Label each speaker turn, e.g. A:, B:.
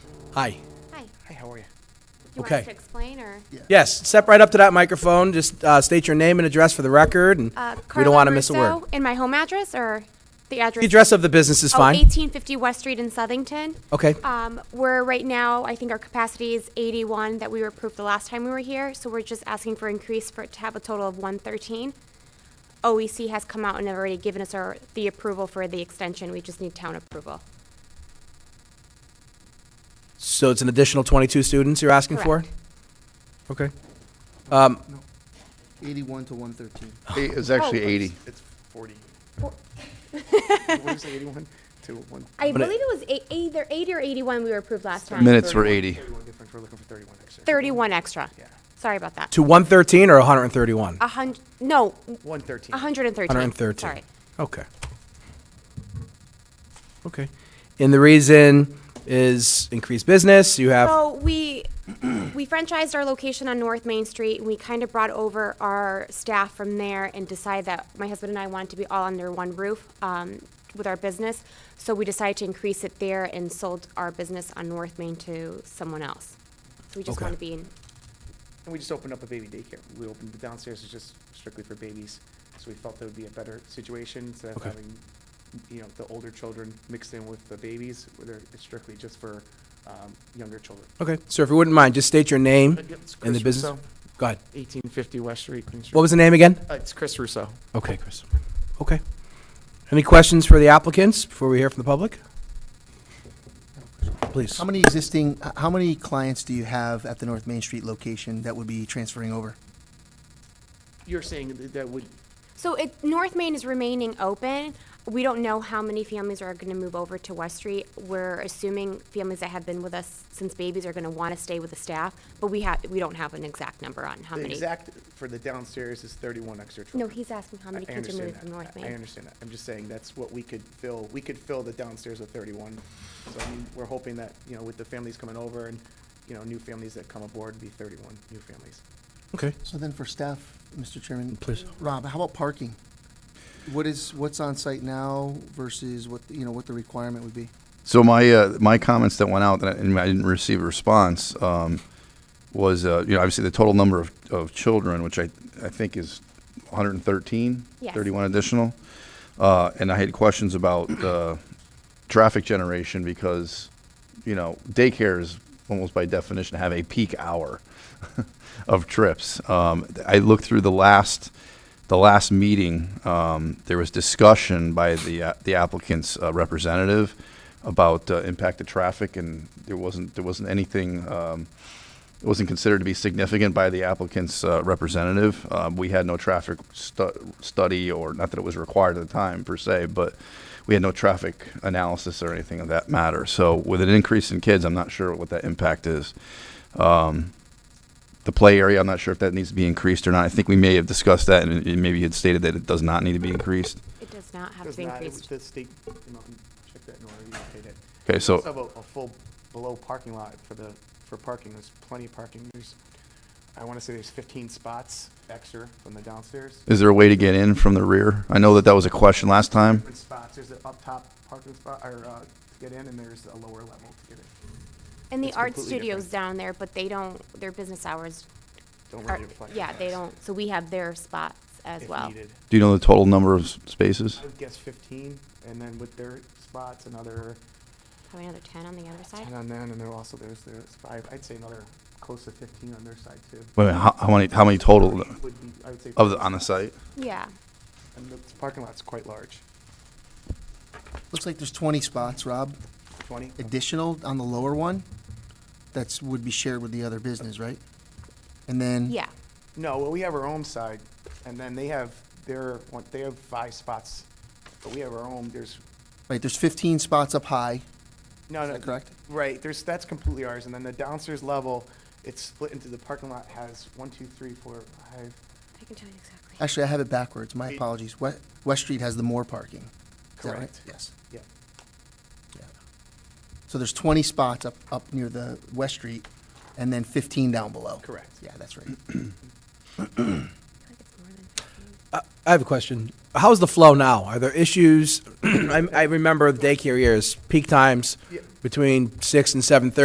A: Hi.
B: Hi.
C: Hi, how are you?
B: You want us
A: Okay.
B: to explain or?
A: Yes, step right up to that microphone. Just uh, state your name and address for the record, and
B: Uh,
A: we
B: Carla
A: don't want to miss a word.
B: Russo In my home address or the address?
A: The address of the business is
B: Oh,
A: fine. Oh.
B: 1850 West Street in Southington.
A: Okay.
B: Um, We're right now, I think our capacity is 81 that we were approved the last time we were here. So we're just asking for increase for, it to have a total of 113. OEC E has come out and have already given us our, the approval for the extension. We just need town approval.
A: So it's an additional 22 students you're asking for?
B: Correct.
A: Okay. Um,
D: Eighty-one to one thirteen.
E: It was actually
B: Oh.
E: 80.
C: It's 40. What did you say, 81 to 1?
B: I
A: But it-
B: believe it was eight- either 80 or 81 we were approved last time.
E: Minutes were 80.
C: 31 difference, we're looking for 31 extra.
B: 31 extra.
C: Yeah.
B: Sorry about that.
A: To 113 or 131?
B: A hun, no,
C: 113.
B: 113.
A: 113.
B: Sorry.
A: Okay. Okay. And the reason is increased business, you have,
B: So we, we franchised our location on North Main Street, and we kind of brought over our staff from there and decided that my husband and I wanted to be all under one roof um, with our business. So we decided to increase it there and sold our business on North Main to someone else. So we just
A: Okay.
B: want to be in,
C: And we just opened up a baby daycare. We opened, the downstairs is just strictly for babies, so we felt that would be a better situation, instead of
A: Okay.
C: having, you know, the older children mixed in with the babies, where they're it's strictly just for um, younger children.
A: okay. So if you wouldn't mind, just state your name
C: Uh, yep, it's
A: and the
C: Chris
A: business.
C: Russo,
A: Go ahead.
C: 1850 West Street. Green Street.
A: What was the name again?
C: Uh, It's Chris Russo.
A: Okay, Chris. Okay. Any questions for the applicants before we hear from the public? Please.
D: How many existing, h- how many clients do you have at the North Main Street location that would be transferring over?
C: You're saying that- that would,
B: So it, North Main is remaining open. We don't know how many families are gonna move over to West Street. We're assuming families that have been with us since babies are gonna wanna stay with the staff, but we have, we don't have an exact number on how
C: the
B: many.
C: exact for the downstairs is 31 extra
B: No,
C: children.
B: he's asking how
C: I-
B: many
C: I
B: kids are
C: understand
B: moving
C: that.
B: from North
C: I- I
B: Main.
C: understand that. I'm just saying that's what we could fill. We could fill the downstairs with thirty-one. So I mean, we're hoping that, you know, with the families coming over and, you know, new families that come aboard, be thirty-one new families.
A: Okay.
D: So then for staff, Mr. Chairman.
A: Please.
D: Rob, how about parking? What is, what's on site now versus what, you know, what the requirement would be?
E: So my, uh, my comments that went out, that I- and I didn't receive a response, um, was, uh, you know, obviously the total number of, of children, which I, I think is 113?
B: Yes.
E: 31 additional. Uh, And I had questions about uh, traffic generation because, you know, daycares almost by definition have a peak hour of trips. Um, I looked through the last, the last meeting, um, there was discussion by the, uh, the applicant's uh, representative about uh, impact of traffic and there wasn't, there wasn't anything, um, it wasn't considered to be significant by the applicant's uh, representative. Um, We had no traffic stu- study, or not that it was required at the time per se, but we had no traffic analysis or anything of that matter. So with an increase in kids, I'm not sure what that impact is. Um, The play area, I'm not sure if that needs to be increased or not. I think we may have discussed that, and and maybe you had stated that it does not need to be increased.
B: It does not have to
C: Does
B: be
C: not- it
B: increased.
C: was- The state came out and checked that in order, you okay that.
E: Okay, so.
C: Let's have a, a full below parking lot for the, for parking, there's plenty of parking, there's, I wanna say there's fifteen spots extra from the downstairs.
E: Is there a way to get in from the rear? I know that that was a question last time.
C: Different spots, there's an up top parking spot, or, uh, to get in, and there's a lower level to get in.
B: And the
C: It's
B: art
C: completely
B: studio's
C: different.
B: down there, but they don't, their business hours
C: Don't
B: are,
C: really reflect.
B: yeah,
C: on
B: they
C: us
B: don't, so we have their spots as
C: if
B: well.
C: needed.
E: Do you know the total number of s- spaces?
C: I would guess fifteen, and then with their spots, another
B: Probably another ten on the other side.
C: ten on them, and there also there's there's five, I'd say another close to fifteen on their side too.
E: Wait, a minute, how, how many, how many total
C: Thirty Would be, I would say.
E: of the, on the site?
B: Yeah,
C: And the parking lot's quite large,
D: Looks like there's twenty spots, Rob,
C: twenty?
D: additional on the lower one. That's, would be shared with the other business, right? And then.
B: yeah.
C: No, well, we have our own side, and then they have their, one- they have five spots, but we have our own, there's,
D: Right, there's fifteen spots up high,
C: no,
D: is
C: no.
D: that correct?
C: Right, there's, that's completely ours, and then the downstairs level, it's split into the parking lot has one, two, three, four, five,
B: I can tell you exactly.
D: Actually, I have it backwards, my
C: Eight.
D: apologies. West, West Street has the more parking. Is that right?
C: Correct.
D: Yes.
C: yeah.
D: Yeah. So there's 20 spots up, up near the West Street, and then 15 down below.
C: Correct.
D: Yeah, that's right.
B: I think it's more than
A: I Uh, I have a question. How's the flow now? Are there issues? I, I remember the daycare years, peak times
C: Yeah.
A: between six and seven thirty.